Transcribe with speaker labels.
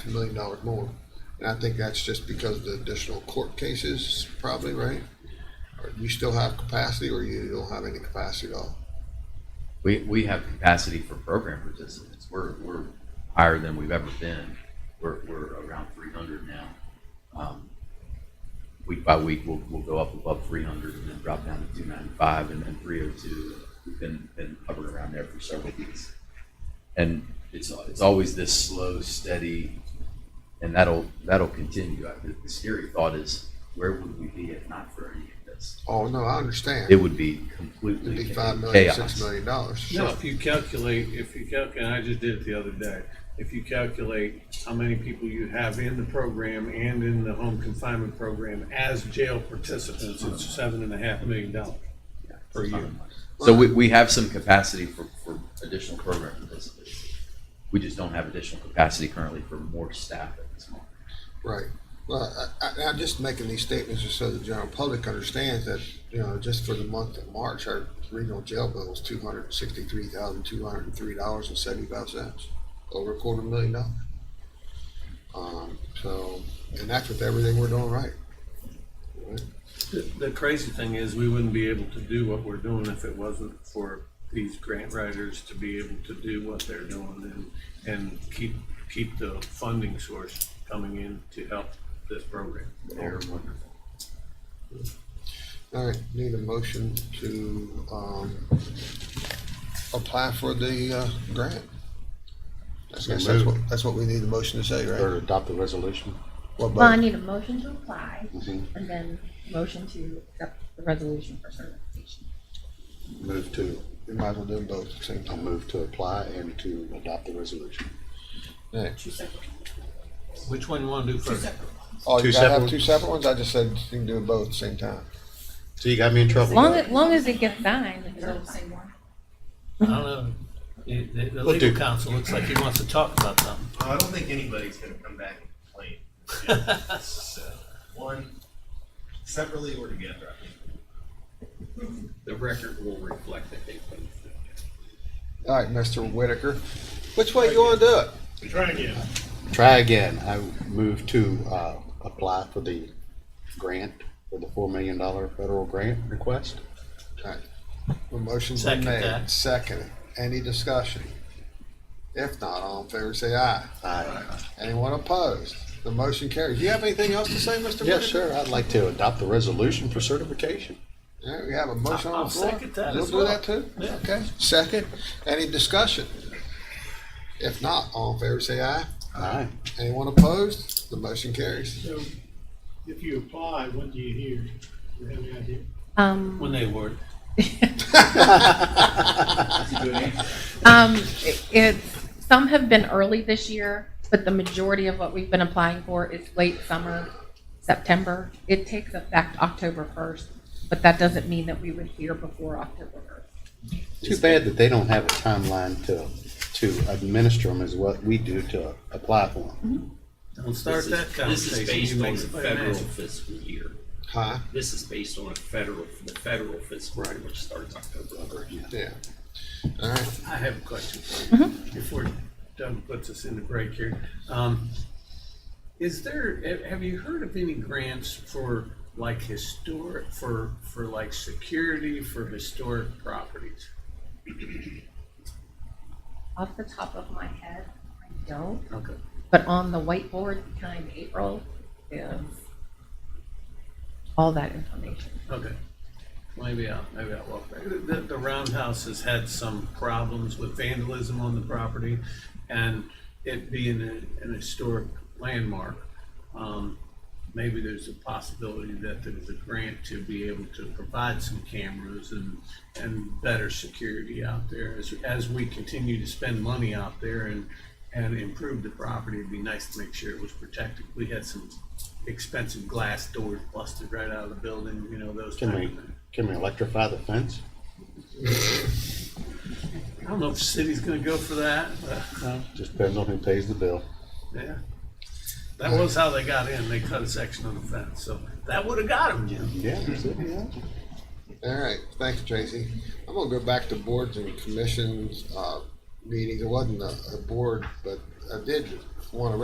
Speaker 1: a million dollars more. And I think that's just because of the additional court cases, probably, right? Or you still have capacity, or you don't have any capacity at all?
Speaker 2: We, we have capacity for program participants. We're, we're higher than we've ever been. We're, we're around three hundred now. Um, Week by week, we'll, we'll go up above three hundred and then drop down to two ninety-five and then three oh two. We've been, been hovering around there for several weeks. And it's, it's always this slow, steady, and that'll, that'll continue. I think The scary thought is, where would we be if not for any of this?
Speaker 1: Oh, no, I
Speaker 2: It
Speaker 1: understand.
Speaker 2: would be
Speaker 1: It'd
Speaker 2: completely
Speaker 1: be
Speaker 2: chaos.
Speaker 1: five million, six million dollars.
Speaker 3: No, if you calculate, if you calculate, I just did it the other day. If you calculate how many people you have in the program and in the home confinement program as jail participants, it's seven and a half million dollars.
Speaker 2: per year. So we, we have some capacity for, for additional program participants. We just don't have additional capacity currently for more staff at this moment.
Speaker 1: Right. Well, I, I, I'm just making these statements just so the general public understands that, you know, just for the month of March, our regional jail bill was two hundred and sixty-three thousand, two hundred and three dollars and seventy-five cents, over a quarter million dollars. Um, so, and that's with everything we're doing right. Right?
Speaker 3: The the crazy thing is, we wouldn't be able to do what we're doing if it wasn't for these grant writers to be able to do what they're doing and, and keep, keep the funding source coming in to help this program.
Speaker 2: They're wonderful.
Speaker 1: All right, need a motion to, um, apply for the, uh, grant. That's, that's
Speaker 4: So moved.
Speaker 1: what, that's what we need a motion to say,
Speaker 4: Or
Speaker 1: right?
Speaker 4: adopt the resolution.
Speaker 1: Well,
Speaker 5: Well, I
Speaker 1: but
Speaker 5: need a motion to apply
Speaker 4: Mhm.
Speaker 5: and then motion to accept the resolution for certification.
Speaker 4: Move to,
Speaker 1: we might as well do them both at the same
Speaker 4: I
Speaker 1: time.
Speaker 4: move to apply and to adopt the resolution.
Speaker 1: Next.
Speaker 5: Two separate,
Speaker 3: Which one you want to do first?
Speaker 1: Oh, you
Speaker 4: Two
Speaker 1: gotta have
Speaker 4: separate-
Speaker 1: two separate ones? I just said you can do them both at the same time.
Speaker 4: So you got me in trouble.
Speaker 5: Long, as long as it gets signed. it's
Speaker 6: They're all
Speaker 5: certified.
Speaker 6: the same one.
Speaker 3: I don't know. The, the- the
Speaker 4: We'll
Speaker 3: legal
Speaker 4: do.
Speaker 3: counsel looks like he wants to talk about something.
Speaker 7: Well, I don't think anybody's gonna come back and complain. So, One, separately or together, I think.
Speaker 3: The record will reflect that they put
Speaker 1: All right, Mr. Whitaker, which way you wanna do it?
Speaker 7: Try again.
Speaker 4: Try again. I move to, uh, apply for the grant, for the four million dollar federal grant request.
Speaker 1: All right. A motion's been
Speaker 3: Second
Speaker 1: made,
Speaker 3: that.
Speaker 1: seconded. Any discussion? If not, all in favor, say aye.
Speaker 4: Aye.
Speaker 1: Anyone opposed? The motion carries. You have anything else to say, Mr. Whitaker?
Speaker 4: Yes, sir. I'd like to adopt the resolution for certification.
Speaker 1: All right, we have a motion on
Speaker 3: I'll
Speaker 1: the floor.
Speaker 3: second that as
Speaker 1: You'll do
Speaker 3: well.
Speaker 1: that too?
Speaker 3: Yeah.
Speaker 1: Okay, second. Any discussion? If not, all in favor, say aye.
Speaker 4: Aye.
Speaker 1: Anyone opposed? The motion carries.
Speaker 8: So if you apply, what do you hear? Do you have any idea?
Speaker 5: Um,
Speaker 3: When they were.
Speaker 5: um, it- it's, some have been early this year, but the majority of what we've been applying for is late summer, September. It takes effect October first, but that doesn't mean that we would hear before October first.
Speaker 4: Too bad that they don't have a timeline to, to administer them as what we do to apply for them.
Speaker 3: Don't start
Speaker 9: This is-
Speaker 3: that conversation.
Speaker 9: This is
Speaker 3: You
Speaker 9: based on
Speaker 3: make
Speaker 9: the
Speaker 3: somebody
Speaker 9: federal
Speaker 3: mad.
Speaker 9: fiscal year.
Speaker 1: Huh?
Speaker 9: This is based on a federal, the federal fiscal year, which starts October.
Speaker 1: Yeah. All right.
Speaker 3: I have a question for you before Doug puts us in the break here. Um, is there, ha- have you heard of any grants for like historic, for, for like security for historic properties?
Speaker 5: Off the top of my head, I don't.
Speaker 3: Okay.
Speaker 5: But on the whiteboard behind April is all that information.
Speaker 3: Okay. Maybe I'll, maybe I'll walk back. The, the roundhouse has had some problems with vandalism on the property and it being a, an historic landmark. Um, maybe there's a possibility that there was a grant to be able to provide some cameras and, and better security out there. As, as we continue to spend money out there and, and improve the property, it'd be nice to make sure it was protected. We had some expensive glass doors busted right out of the building, you know, those
Speaker 4: Can
Speaker 3: type of
Speaker 4: we,
Speaker 3: things.
Speaker 4: can we electrify the fence?
Speaker 3: I don't know if the city's gonna go for that, but,
Speaker 4: Just depends on who pays the bill.
Speaker 3: yeah. That was how they got in, they cut a section of the fence, so that would've got them, Jim.
Speaker 4: Yeah, that's it.
Speaker 1: All right, thanks, Tracy. I'm gonna go back to boards and commissions, uh, meetings. It wasn't a, a board, but I did wanna